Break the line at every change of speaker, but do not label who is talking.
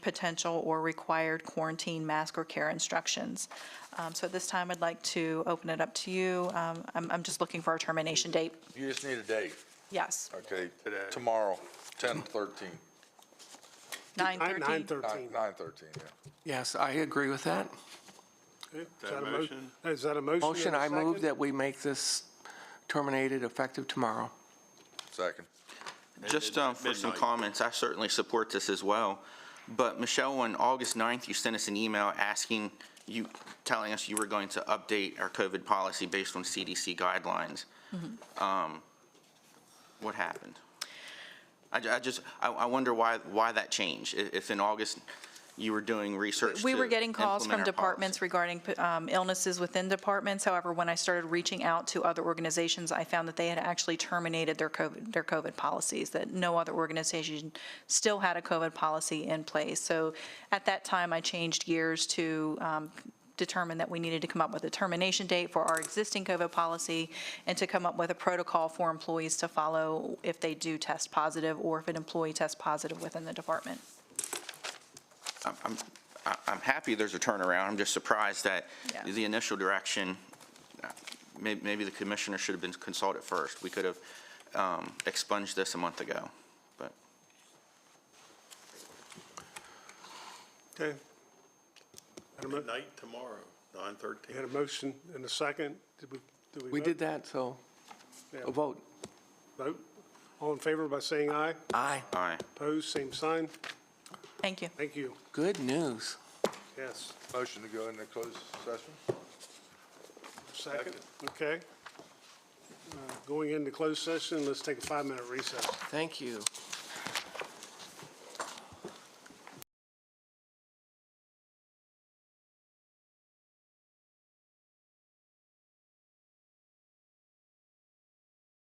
potential or required quarantine mask or care instructions. Um, So at this time, I'd like to open it up to you. Um, I'm I'm just looking for a termination date.
You just need a date,
Yes,
okay?
Today.
Tomorrow, 10, 13,
9:13.
9:13.
9, 13, yeah.
Yes, I agree with that.
Okay, Is
That
that a mo-
motion?
Is that a motion? and
Motion,
a
I move
second?
that we make this terminated effective tomorrow.
Second.
Just um, for some
midnight.
comments, I certainly support this as well. But Michelle, on August 9th, you sent us an email asking, you, telling us you were going to update our COVID policy based on CDC guidelines.
Mm-hmm.
Um, What happened? I ju- I just, I- I wonder why, why that changed, i- if in August you were doing research
We
to
were getting calls
implement
from
our
departments
policy.
regarding um, illnesses within departments. However, when I started reaching out to other organizations, I found that they had actually terminated their COVID, their COVID policies, that no other organization still had a COVID policy in place. So at that time, I changed gears to um, determine that we needed to come up with a termination date for our existing COVID policy and to come up with a protocol for employees to follow if they do test positive or if an employee tests positive within the department.
I'm- I'm, I- I'm happy there's a turnaround, I'm just surprised that
Yeah.
the initial direction, uh, may- maybe the commissioner should have been consulted first. We could have um, expunged this a month ago, but
Okay. Had a mo-
Midnight tomorrow, 9:13.
Had a motion and a second. Did we, did we?
We
vote?
did that, so
Yeah.
a vote.
Vote. All in favor by saying aye.
Aye.
aye.
Opposed, same sign.
Thank you.
Thank you.
Good news.
Yes.
Motion to go into closed session?
Second. Okay. Uh, Going into closed session, let's take a five-minute recess.
Thank you.